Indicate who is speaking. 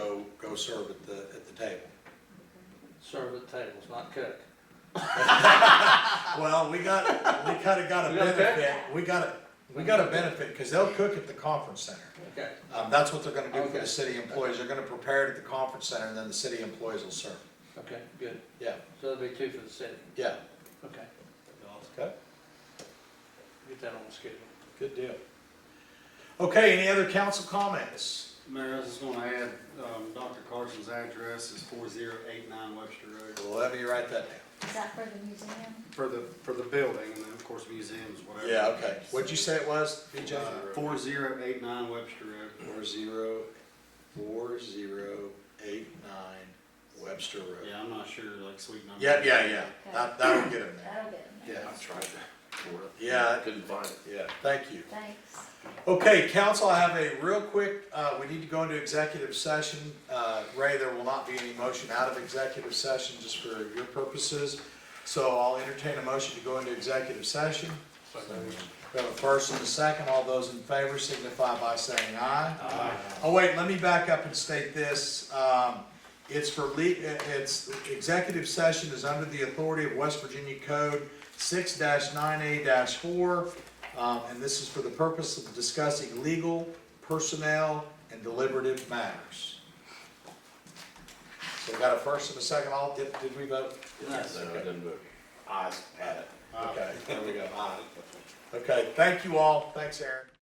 Speaker 1: go serve at the, at the table.
Speaker 2: serve at tables, not cook.
Speaker 1: Well, we got, we kinda got a
Speaker 2: We got a
Speaker 1: benefit, we got a, we got a benefit, cause they'll cook at the conference center.
Speaker 2: Okay,
Speaker 1: Um, that's what they're gonna do for
Speaker 2: Okay.
Speaker 1: the city employees, they're gonna prepare it at the conference center, and then the city employees will serve.
Speaker 2: okay, good.
Speaker 1: Yeah,
Speaker 2: So there'll be two for the city.
Speaker 1: yeah.
Speaker 2: Okay,
Speaker 1: Okay.
Speaker 2: get that on the schedule.
Speaker 1: Good deal. Okay, any other council comments?
Speaker 3: Mayor, I was just gonna add, um, Dr. Carson's address is four zero eight nine Webster Road
Speaker 1: Well, Let me write that down.
Speaker 4: Is that for the museum?
Speaker 3: for the, for the building and then of course museums, whatever. Uh,
Speaker 1: Yeah, okay. What'd you say it was, BJ?
Speaker 3: Four zero eight nine Webster Road.
Speaker 1: Uh, Four zero, four zero eight nine Webster Road.
Speaker 3: Yeah, I'm not sure, like sweet number.
Speaker 1: Yeah, yeah, yeah, that, that'll get him there,
Speaker 4: That'll get them.
Speaker 1: yeah,
Speaker 5: I tried that for it.
Speaker 1: Yeah.
Speaker 5: Couldn't find it.
Speaker 1: yeah, thank you.
Speaker 4: Thanks.
Speaker 1: Okay, council, I have a real quick, uh, we need to go into executive session. Uh, Ray, there will not be any motion out of executive session, just for your purposes. So I'll entertain a motion to go into executive session. We have a first and a second, all those in favor signify by saying aye. Aye. Oh, wait, let me back up and state this, um, it's for le, it's, executive session is under the authority of West Virginia Code six nine A four, um, and this is for the purpose of discussing legal, personnel, and deliberative matters. So we got a first and a second, all, did, did we vote?
Speaker 3: Nice.
Speaker 5: No, I didn't vote.
Speaker 1: Ayes. Had it.
Speaker 3: Aye.
Speaker 1: Okay, there we go, aye. Okay, thank you all, thanks Aaron.